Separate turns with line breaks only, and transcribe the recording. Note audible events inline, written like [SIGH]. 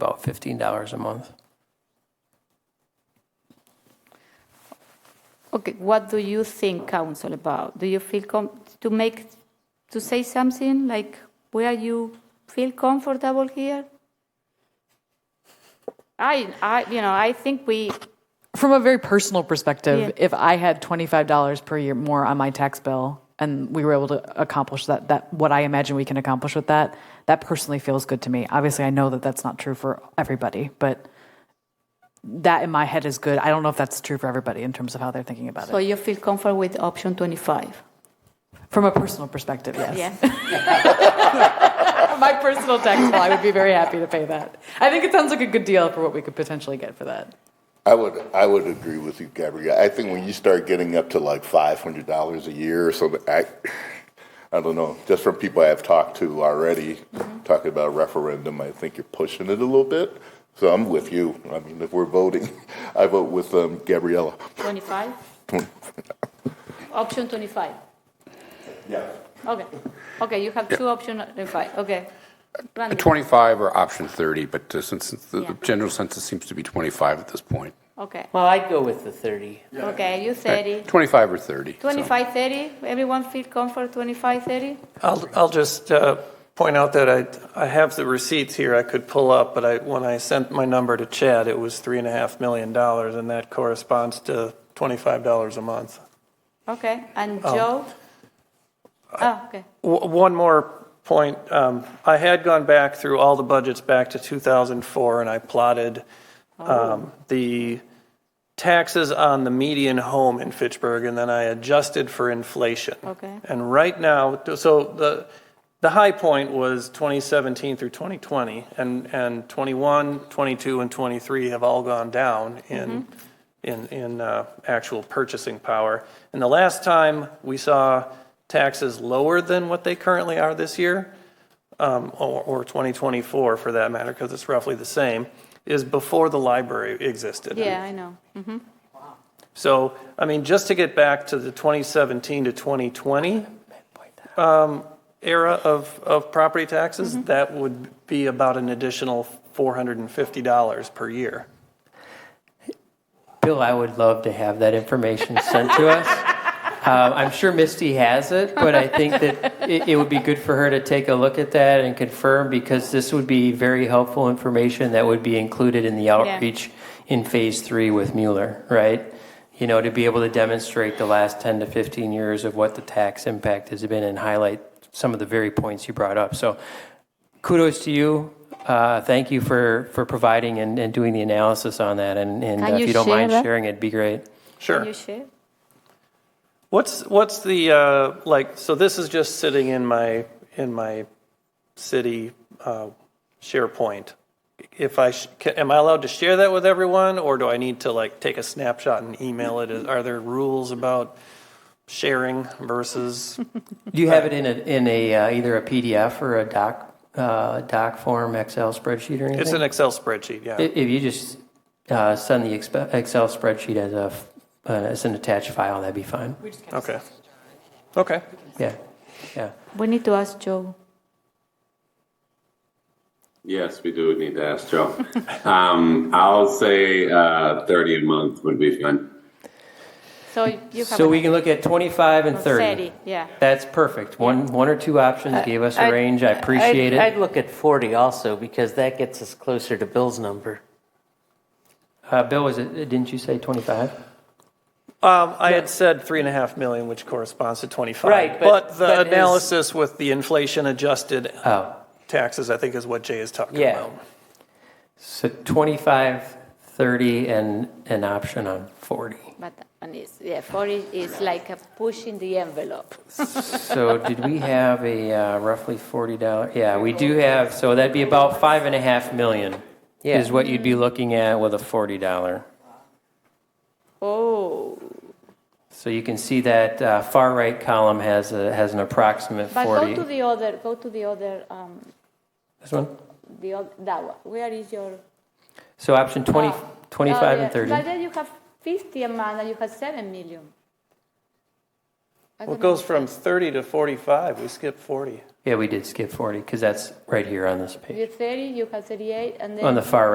about $15 a month.
Okay, what do you think, council, about? Do you feel com, to make, to say something like where you feel comfortable here? I, I, you know, I think we,
From a very personal perspective,
Yeah.
if I had $25 per year more on my tax bill and we were able to accomplish that, that what I imagine we can accomplish with that, that personally feels good to me. Obviously, I know that that's not true for everybody, but that in my head is good. I don't know if that's true for everybody in terms of how they're thinking about
so
it.
you feel comfortable with option 25?
From a personal perspective, yes.
Yeah. [LAUGHS]
From [LAUGHS] my personal tax bill, I would be very happy to pay that. I think it sounds like a good deal for what we could potentially get for that.
I would, I would agree with you, Gabrielle. I think when you start getting up to like five hundred dollars a year or something, I, I don't know. Just from people I've talked to already, talking about referendum, I think you're pushing it a little bit. So I'm with you. I mean, if we're voting, [LAUGHS] I vote with um, Gabriella.
25? Option 25?
Yeah.
Okay, okay, you have two option 25, okay. Randy,
25 or option 30, but uh, since the
Yeah.
the general census seems to be 25 at this point.
Okay,
Well, I'd go with the 30.
okay, you 30.
25 or 30. so.
25, 30, everyone feel comfortable, 25, 30?
I'll, I'll just uh, point out that I, I have the receipts here I could pull up, but I, when I sent my number to Chad, it was three and a half million dollars, and that corresponds to twenty-five dollars a month.
Okay, and
Oh.
Joe? Ah, okay,
W- One more point. Um, I had gone back through all the budgets back to 2004, and I plotted um, the taxes on the median home in Fitchburg, and then I adjusted for inflation.
Okay.
And right now, so the, the high point was 2017 through 2020, and, and 21, 22, and 23 have all gone down in, in, in uh, actual purchasing power. And the last time we saw taxes lower than what they currently are this year, um, or, or 2024 for that matter, because it's roughly the same, is before the library existed.
yeah, I know.
So, I mean, just to get back to the 2017 to 2020 um, era of, of property taxes, that would be about an additional $450 per year.
Bill, I would love to have that information sent to us. Uh, I'm sure Misty has it, but I think that it, it would be good for her to take a look at that and confirm because this would be very helpful information that would be included in the outreach in phase three with Mueller, right? You know, to be able to demonstrate the last 10 to 15 years of what the tax impact has been and highlight some of the very points you brought up. So kudos to you. Uh, thank you for, for providing and, and doing the analysis on that. And, and
Can
uh,
you
if you don't
share
mind
that?
sharing, it'd be great.
Sure.
Can you share?
What's what's the uh, like? So this is just sitting in my in my city uh, SharePoint. If I sh- ca am I allowed to share that with everyone, or do I need to like take a snapshot and email it? Is- Are there rules about sharing
[LAUGHS]
versus?
Do you have it in a, in a uh, either a PDF or a doc uh, doc form, Excel spreadsheet, or anything?
it's an Excel spreadsheet. Yeah.
I- If you just uh, send the expe- Excel spreadsheet as a f- uh, as an attached file, that'd be fine.
okay. Okay.
Yeah, yeah.
We need to ask Joe.
Yes, we do need to ask Joe. um, I'll say uh, 30 a month would be fine.
So you have.
So we
an-
can look at 25 and 30.
30, yeah.
That's perfect. One one or two
Uh,
options gave us a range. I appreciate
I'd-
it.
I'd look at 40 also because that gets us closer to Bill's number.
uh, Bill, was it? Didn't you say 25?
Um, I had said three and a half million, which corresponds to twenty-five.
Right,
but,
but-
the
but is-
analysis with the inflation-adjusted
Oh,
taxes, I think, is what Jay is talking
Yeah.
about.
so 25, 30, and an option on 40.
But, and it's, yeah, 40 is like a pushing the envelope.
So did we have a uh, roughly $40? Yeah, we do have. So that'd be about five and a half million.
Yeah.
Is what you'd be looking at with a forty dollar.
Oh,
So you can see that uh, far right column has a, has an approximate
but go
forty.
to the other, go to the other, um,
This one.
the other, that one. Where is your?
So option 20,
Ah,
25
oh, yeah.
and thirty.
But then you have 50 a month and you have 7 million.
Well, it goes from 30 to 45, we skipped 40.
Yeah, we did skip 40 because that's right here on this
You're
page,
30, you have 38, and then.
on the far